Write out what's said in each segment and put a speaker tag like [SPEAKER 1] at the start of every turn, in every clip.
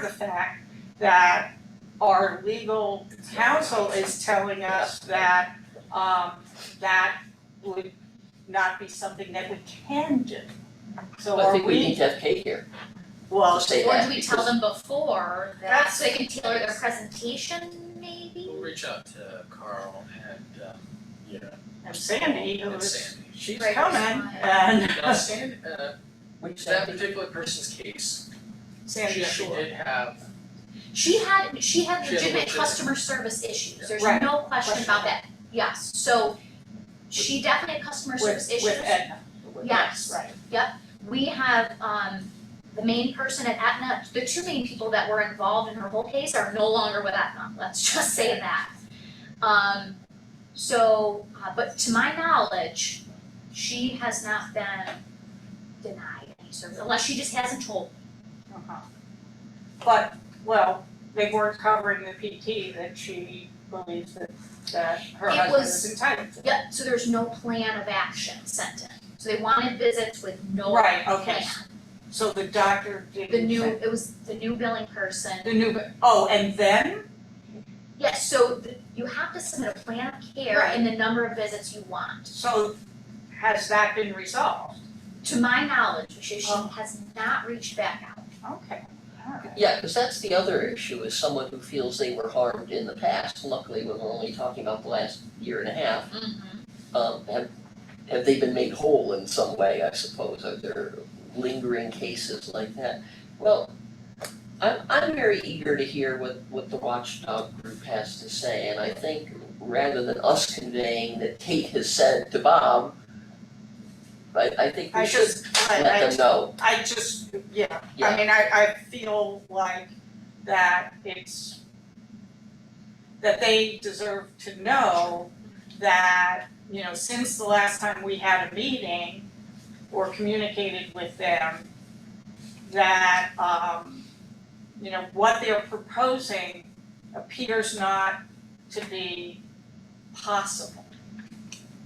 [SPEAKER 1] the fact that our legal counsel is telling us that, um, that would not be something that we can do. So
[SPEAKER 2] I
[SPEAKER 1] are
[SPEAKER 2] think we need
[SPEAKER 1] we,
[SPEAKER 2] to have Kate here to
[SPEAKER 1] well,
[SPEAKER 2] say
[SPEAKER 3] Or
[SPEAKER 2] that.
[SPEAKER 3] do we tell them before that,
[SPEAKER 1] That's-
[SPEAKER 3] so they can tailor their presentation maybe?
[SPEAKER 4] We'll reach out to Carl and, um, you know,
[SPEAKER 1] and Sandy, who
[SPEAKER 4] and
[SPEAKER 1] is,
[SPEAKER 4] Sandy.
[SPEAKER 1] she's
[SPEAKER 3] Right.
[SPEAKER 1] coming, and
[SPEAKER 4] Now, Sandy, uh,
[SPEAKER 2] Which
[SPEAKER 4] that
[SPEAKER 2] Sandy,
[SPEAKER 4] particular person's case,
[SPEAKER 1] Sandy,
[SPEAKER 4] she, she
[SPEAKER 1] sure,
[SPEAKER 4] did have,
[SPEAKER 3] She had, she had
[SPEAKER 4] She had
[SPEAKER 3] legitimate
[SPEAKER 4] legitimate-
[SPEAKER 3] customer service issues, there's
[SPEAKER 1] Right.
[SPEAKER 3] no question about that, yes, so she definitely had customer service
[SPEAKER 1] with,
[SPEAKER 3] issues.
[SPEAKER 1] with Aetna. with-
[SPEAKER 3] Yes.
[SPEAKER 1] Right,
[SPEAKER 3] We have, um, the main person at Aetna, the two main people that were involved in her whole case are no longer with Aetna, let's just say that. Um, so, uh, but to my knowledge, she has not been denied any service, unless she just hasn't told.
[SPEAKER 1] uh-huh. But, well, they weren't covering the PT that she believes that, that her
[SPEAKER 3] It
[SPEAKER 1] husband
[SPEAKER 3] was-
[SPEAKER 1] is entitled to.
[SPEAKER 3] Yep, so there's no plan of action sent in, so they wanted visits with no plan.
[SPEAKER 1] Right, okay. So the doctor didn't.
[SPEAKER 3] The new,
[SPEAKER 1] say-
[SPEAKER 3] it was the new billing person.
[SPEAKER 1] The new, oh, and then,
[SPEAKER 3] Yes, so th- you have to submit a plan of care and the number of visits you want.
[SPEAKER 1] so has that been resolved?
[SPEAKER 3] To my knowledge, she she
[SPEAKER 1] Oh.
[SPEAKER 3] has not reached back out.
[SPEAKER 1] Okay, alright.
[SPEAKER 2] yeah, cause that's the other issue, is someone who feels they were harmed in the past, luckily, we're only talking about the last year and a half. Um, have, have they been made whole in some way, I suppose, are there lingering cases like that? Well, I'm, I'm very eager to hear what, what the watchdog group has to say, and I think rather than us conveying that Kate has said to Bob, I, I think
[SPEAKER 1] I
[SPEAKER 2] we should
[SPEAKER 1] just, I,
[SPEAKER 2] let them know.
[SPEAKER 1] I, I just, yeah,
[SPEAKER 2] Yeah.
[SPEAKER 1] I mean, I, I feel like that it's, that they deserve to know that, you know, since the last time we had a meeting or communicated with them, that, um, you know, what they're proposing appears not to be possible.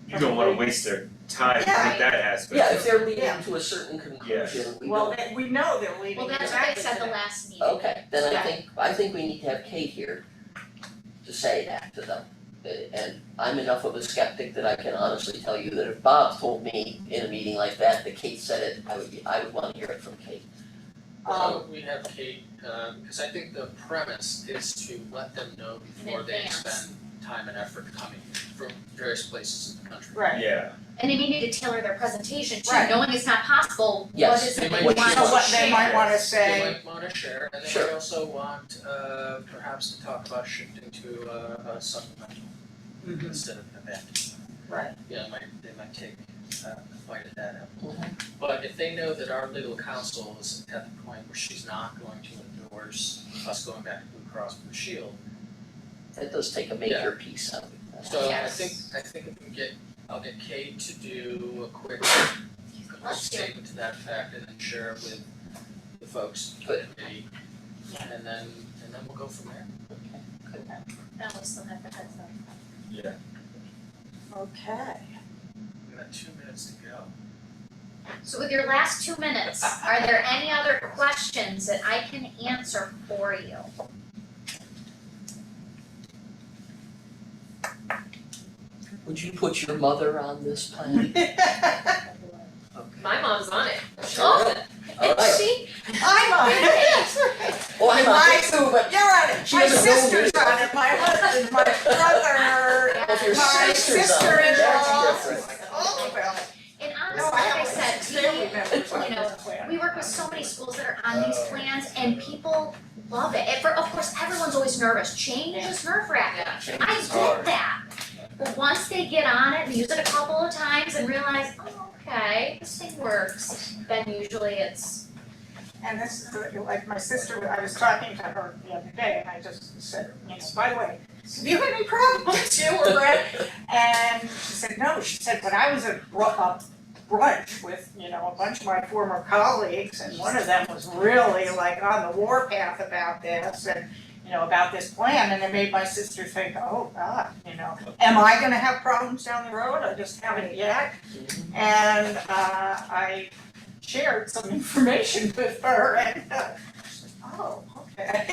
[SPEAKER 5] You don't wanna waste their time with
[SPEAKER 3] Yeah.
[SPEAKER 5] that aspect.
[SPEAKER 2] Yeah, if they're
[SPEAKER 1] Yeah.
[SPEAKER 2] leading to a certain conclusion, we
[SPEAKER 1] Well,
[SPEAKER 2] don't,
[SPEAKER 1] they, we know they're leading
[SPEAKER 3] Well,
[SPEAKER 1] exactly
[SPEAKER 3] that's what they
[SPEAKER 1] to
[SPEAKER 3] said the
[SPEAKER 1] that.
[SPEAKER 3] last meeting.
[SPEAKER 2] okay, then I
[SPEAKER 1] Yeah.
[SPEAKER 2] think, I think we need to have Kate here to say that to them. Uh, And I'm enough of a skeptic that I can honestly tell you that if Bob told me in a meeting like that, that Kate said it, I would, be- I would wanna hear it from Kate.
[SPEAKER 4] how
[SPEAKER 1] Um,
[SPEAKER 4] would uh, we have Kate, um, cause I think the premise is to let them know before they
[SPEAKER 3] advance.
[SPEAKER 4] spend time and effort coming from various places in the country.
[SPEAKER 1] right.
[SPEAKER 5] Yeah,
[SPEAKER 3] And they needed to tailor their presentation to,
[SPEAKER 1] Right.
[SPEAKER 3] knowing it's not possible, what
[SPEAKER 2] Yes.
[SPEAKER 3] is it
[SPEAKER 4] They
[SPEAKER 3] they
[SPEAKER 4] might
[SPEAKER 3] want
[SPEAKER 2] What
[SPEAKER 3] to
[SPEAKER 2] she
[SPEAKER 3] share?
[SPEAKER 1] So what
[SPEAKER 2] wants.
[SPEAKER 1] they might wanna
[SPEAKER 4] They
[SPEAKER 1] say,
[SPEAKER 4] might wanna share, and they might
[SPEAKER 2] Sure.
[SPEAKER 4] also want, uh, perhaps to talk about shifting to, uh, a supplemental
[SPEAKER 1] Mhm.
[SPEAKER 4] instead of an event.
[SPEAKER 1] Right.
[SPEAKER 4] Yeah, might, they might take, uh, a bite at that apple. But if they know that our legal counsel is at the point where she's not going to endorse us going back to Blue Cross Blue Shield,
[SPEAKER 2] That does take a major piece out of it.
[SPEAKER 4] so I
[SPEAKER 3] Yes.
[SPEAKER 4] think, I think if we get, I'll get Kate to do a quick
[SPEAKER 3] Let's do it.
[SPEAKER 4] statement to that fact and then share it with the folks.
[SPEAKER 2] Good.
[SPEAKER 4] And then, and then we'll go from there.
[SPEAKER 3] No, we still have the heads up.
[SPEAKER 5] yeah.
[SPEAKER 1] okay.
[SPEAKER 4] We've got two minutes to go.
[SPEAKER 3] So with your last two minutes, are there any other questions that I can answer for you?
[SPEAKER 2] Would you put your mother on this plan? Okay.
[SPEAKER 6] My mom's on it.
[SPEAKER 3] Oh,
[SPEAKER 2] All
[SPEAKER 3] Is
[SPEAKER 2] right.
[SPEAKER 3] she?
[SPEAKER 1] I'm on it.
[SPEAKER 2] Oh, I'm on
[SPEAKER 1] My-
[SPEAKER 2] it too, but
[SPEAKER 1] You're on it.
[SPEAKER 2] She
[SPEAKER 1] My
[SPEAKER 2] doesn't know me.
[SPEAKER 1] sister's on it, my husband, my brother,
[SPEAKER 2] if your
[SPEAKER 1] my
[SPEAKER 2] sister's on it, that's
[SPEAKER 1] sister-in-law,
[SPEAKER 2] different.
[SPEAKER 1] all of them.
[SPEAKER 3] And
[SPEAKER 1] No, I
[SPEAKER 3] honestly, like I
[SPEAKER 1] have
[SPEAKER 3] said,
[SPEAKER 1] six
[SPEAKER 3] we
[SPEAKER 1] family members on
[SPEAKER 3] you know,
[SPEAKER 1] this plan.
[SPEAKER 3] We work with so many schools that are on these plans and people love it. And for, of course, everyone's always nervous. Change is nerve wracking. I get that. But once they get on it and use it a couple of times and realize, oh, okay, this thing works, then usually it's,
[SPEAKER 1] And this is the- like my sister, I was talking to her the other day and I just said, you know, by the way, have you had any problems you were Brett? And she said, no, she said, but I was at br- a brunch with, you know, a bunch of my former colleagues and one of them was really like on the warpath about this and, you know, about this plan and it made my sister think, oh God, you know, am I gonna have problems down the road? I just haven't yet. And uh I shared some information with her and uh, she said, oh, I think